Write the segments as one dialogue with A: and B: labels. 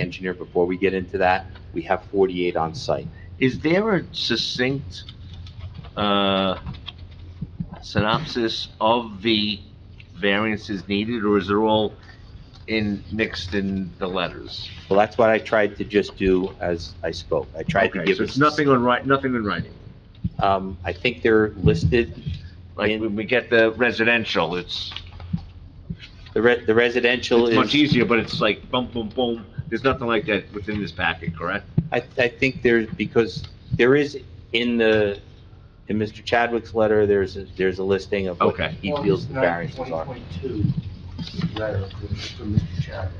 A: engineer, before we get into that, we have 48 on site.
B: Is there a succinct uh, synopsis of the variances needed, or is it all in, mixed in the letters?
A: Well, that's what I tried to just do as I spoke. I tried to
B: Okay,
A: give.
B: So
A: it-
B: it's nothing on writing, nothing in writing?
A: Um, I think they're listed,
B: Like, when we get the residential, it's
A: the re- the residential
B: it's much
A: is,
B: easier, but it's like boom, boom, boom. There's nothing like that within this packet, correct?
A: I, I think there's, because there is in the, in Mr. Chadwick's letter, there's, a- there's a listing of what
B: Okay.
A: he feels the variances are.
C: 2022 letter from from Mr. Chadwick.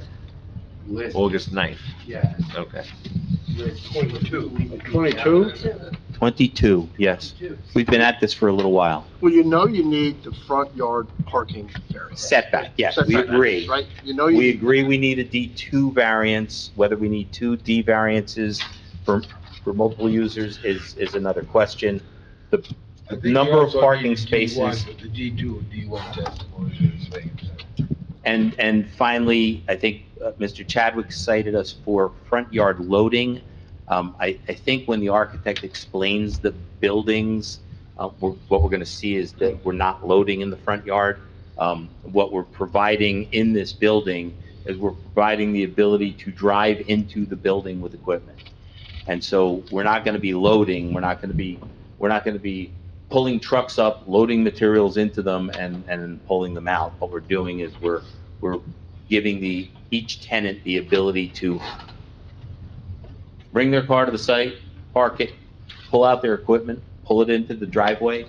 C: List,
B: August 9th,
C: yeah,
B: okay.
C: list 22.
D: 22?
A: Twenty-two, yes. We've been at this for a little while.
D: Well, you know you need the front yard parking variance.
A: Setback, yes, we
D: Setback,
A: agree.
D: Right, you know
A: We
D: you,
A: agree we need a D2 variance, whether we need two D variances for, for multiple users is, is another question. The number of parking spaces,
C: The D2, D1 testimony.
A: and, and finally, I think uh, Mr. Chadwick cited us for front yard loading. Um, I, I think when the architect explains the buildings, uh, we're- what we're gonna see is that we're not loading in the front yard. Um, what we're providing in this building is we're providing the ability to drive into the building with equipment. And so we're not gonna be loading, we're not gonna be, we're not gonna be pulling trucks up, loading materials into them and, and pulling them out. What we're doing is we're, we're giving the, each tenant the ability to bring their car to the site, park it, pull out their equipment, pull it into the driveway,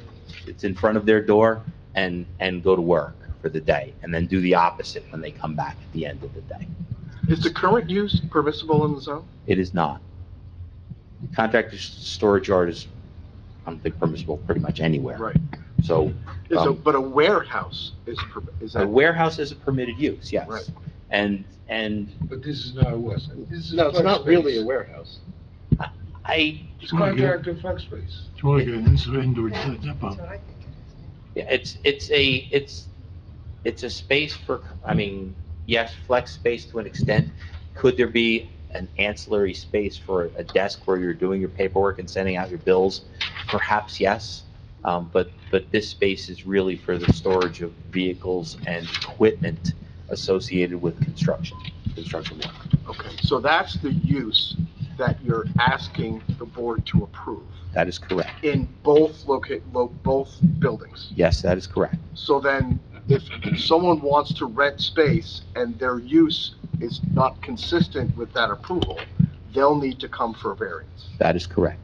A: it's in front of their door, and, and go to work for the day, and then do the opposite when they come back at the end of the day.
D: is the current use permissible in the zone?
A: It is not. Contractor's storage yard is, I don't think permissible pretty much anywhere.
D: Right.
A: So
D: Is a-
A: Um,
D: But a warehouse is, per- is
A: a
D: that?
A: warehouse is a permitted use, yes.
D: Right.
A: And, and
C: But this is not a West, this is.
D: No, it's
C: flex
D: not really a
C: space.
D: warehouse.
A: I,
C: It's contractor flex space.
E: Do you want to get an indoor- indoor depot?
A: it's, it's a, it's, it's a space for, I mean, yes, flex space to an extent. Could there be an ancillary space for a desk where you're doing your paperwork and sending out your bills? Perhaps yes, um, but, but this space is really for the storage of vehicles and equipment associated with construction, construction work.
D: Okay, so that's the use that you're asking the board to approve
A: That is correct.
D: in both locate, lo, both buildings.
A: Yes, that is correct.
D: So then, if someone wants to rent space and their use is not consistent with that approval, they'll need to come for a variance.
A: That is correct.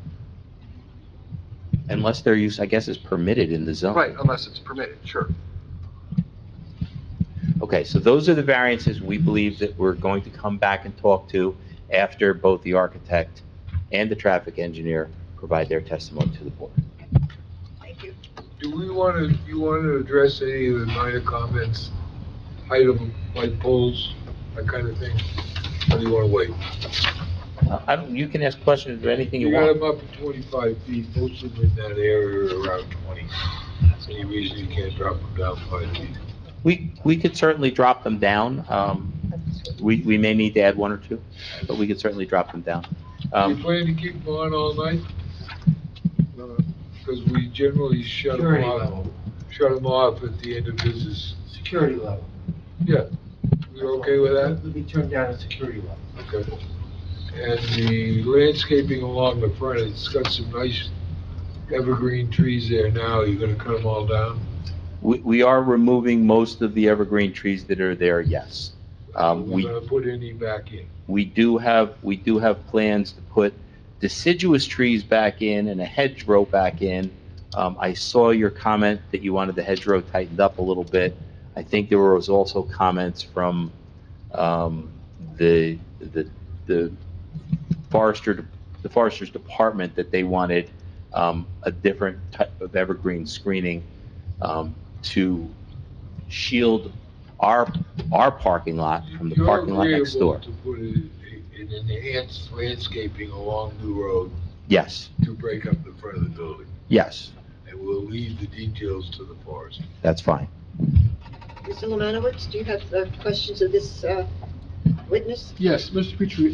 A: Unless their use, I guess, is permitted in the zone.
D: Right, unless it's permitted, sure.
A: Okay, so those are the variances we believe that we're going to come back and talk to after both the architect and the traffic engineer provide their testimony to the board.
C: Do we want to, you want to address any of the minor comments, height of light poles, that kind of thing? Or do you want to wait?
A: Uh, I don't, you can ask questions or anything you
C: You got
A: want.
C: them up at 25 feet, most of them in that area are around 20. Any reason you can't drop them down five feet?
A: We, we could certainly drop them down. Um, we, we may need to add one or two, but we could certainly drop them down.
C: Do you
A: Um,
C: plan to keep them on all night?
D: No, no.
C: Because we generally shut them
F: Security
C: off,
F: level.
C: shut them off at the end of business.
F: Security level.
C: Yeah, you're okay with that?
F: Would be turned down at security level.
C: Okay. And the landscaping along the front, it's got some nice evergreen trees there now. You're gonna cut them all down?
A: we, we are removing most of the evergreen trees that are there, yes. Um,
C: We're
A: we
C: gonna put any back in.
A: We do have, we do have plans to put deciduous trees back in and a hedgerow back in. Um, I saw your comment that you wanted the hedgerow tightened up a little bit. I think there was also comments from, um, the, the, the forester, the forester's department that they wanted, um, a different type of evergreen screening, um, to shield our, our parking lot from the
C: You're
A: parking lot next door.
C: agreeable To put a- an enhanced landscaping along the road
A: Yes,
C: to break up the front of the building.
A: yes,
C: And we'll leave the details to the forest.
A: that's fine.
G: Mr. Lemanowitz, do you have uh, questions of this uh, witness?
H: Yes, Mr. Petrie,